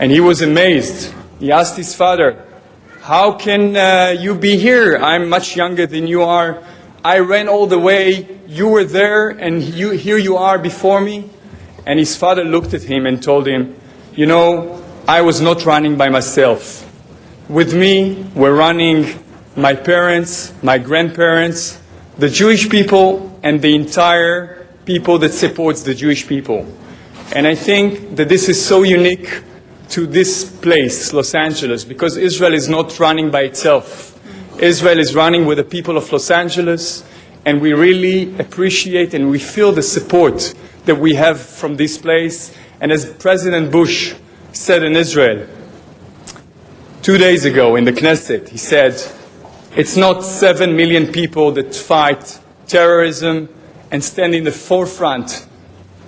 And he was amazed. He asked his father, How can uh, you be here? I'm much younger than you are. I ran all the way. You were there, and you, here you are before me. And his father looked at him and told him, You know, I was not running by myself. With me were running my parents, my grandparents, the Jewish people, and the entire people that supports the Jewish people. And I think that this is so unique to this place, Los Angeles, because Israel is not running by itself. Israel is running with the people of Los Angeles, and we really appreciate and we feel the support that we have from this place. And as President Bush said in Israel two days ago in the Knesset, he said, It's not seven million people that fight terrorism and stand in the forefront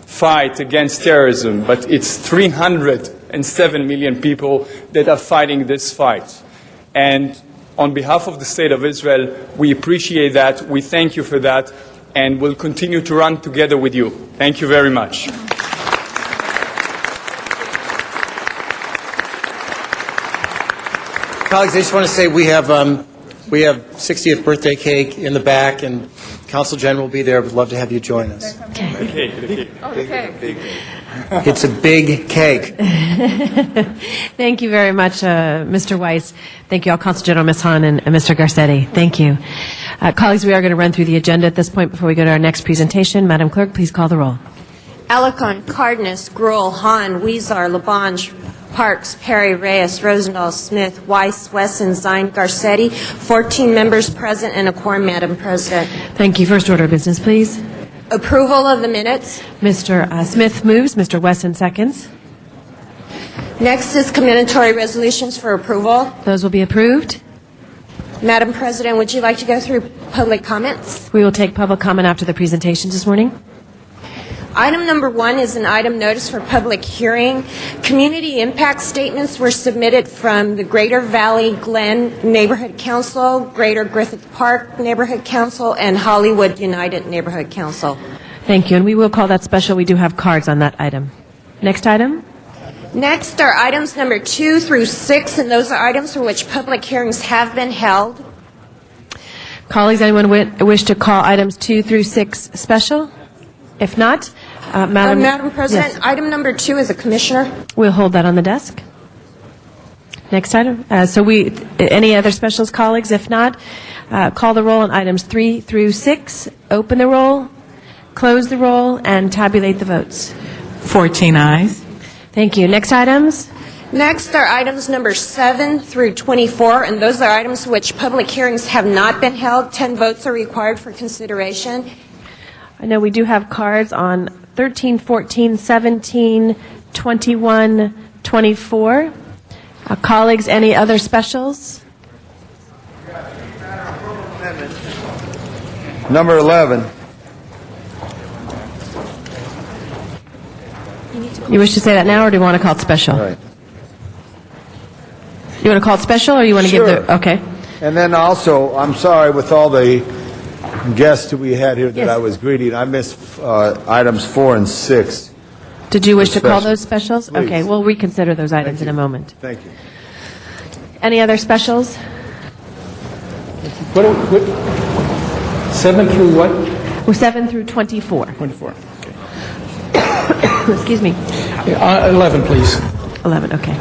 fight against terrorism, but it's 307 million people that are fighting this fight. And on behalf of the State of Israel, we appreciate that, we thank you for that, and we'll continue to run together with you. Thank you very much. Colleagues, I just want to say we have, um, we have 60th birthday cake in the back, and Council General will be there. Would love to have you join us. It's a big cake. Thank you very much, uh, Mr. Weiss. Thank you all, Consul General Ms. Hahn and and Mr. Garcetti. Thank you. Uh, Colleagues, we are going to run through the agenda at this point before we go to our next presentation. Madam Clerk, please call the roll. Alarcon, Cardenas, Gruel, Hahn, Weezer, Labange, Parks, Perry, Reyes, Rosendahl, Smith, Weiss, Wesson, Zine, Garcetti, 14 members present and a quorum, Madam President. Thank you. First order of business, please. Approval of the minutes. Mr. uh, Smith moves, Mr. Wesson seconds. Next is commendatory resolutions for approval. Those will be approved. Madam President, would you like to go through public comments? We will take public comment after the presentations this morning. Item number one is an item notice for public hearing. Community impact statements were submitted from the Greater Valley Glen Neighborhood Council, Greater Griffith Park Neighborhood Council, and Hollywood United Neighborhood Council. Thank you, and we will call that special. We do have cards on that item. Next item? Next are items number two through six, and those are items for which public hearings have been held. Colleagues, anyone wi- wish to call items two through six special? If not, uh, Uh, Madam... Madam President, Yes. item number two is a commissioner. We'll hold that on the desk. Next item. Uh, So we, any other specials, colleagues? If not, uh, call the roll on items three through six, open the roll, close the roll, and tabulate the votes. 14 eyes. Thank you. Next items? Next are items number seven through 24, and those are items for which public hearings have not been held. 10 votes are required for consideration. I know we do have cards on 13, 14, 17, 21, 24. Uh, Colleagues, any other specials? Number 11, You wish to say that now, or do you want to call it special? right. You want to call it special, or you want to give the... Sure. Okay. And then also, I'm sorry, with all the guests we had here that Yes. I was greeting, I missed uh, items four and six. Did you wish to call Special. those specials? Please. Okay, we'll reconsider those items in Thank a you. moment. Thank you. Any other specials? What, what, seven through what? Well, 7 through 24. 24. Excuse me. Uh, 11, please. 11, okay.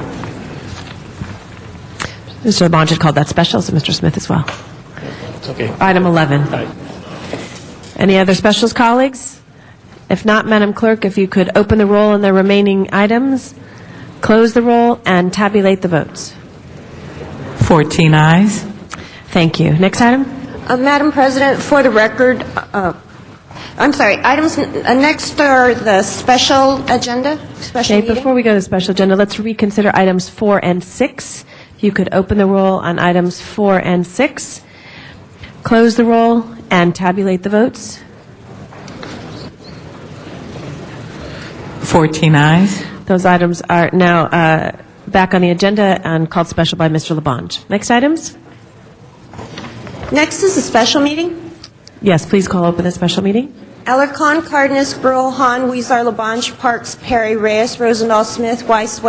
Mr. Labange had called that special, so Mr. Smith as well. Okay. Item 11. Aye. Any other specials, colleagues? If not, Madam Clerk, if you could open the roll on the remaining items, close the roll, and tabulate the votes. 14 eyes. Thank you. Next item? Uh, Madam President, for the record, uh, I'm sorry, items, uh, next are the special agenda, special Okay, meeting. before we go to the special agenda, let's reconsider items four and six. If you could open the roll on items four and six, close the roll, and tabulate the votes. 14 eyes. Those items are now uh, back on the agenda and called special by Mr. Labange. Next items? Next is the special meeting. Yes, please call open the special meeting. Alarcon, Cardenas, Gruel, Han, Weezer, Labange, Parks, Perry, Reyes, Rosendahl, Smith, Weiss,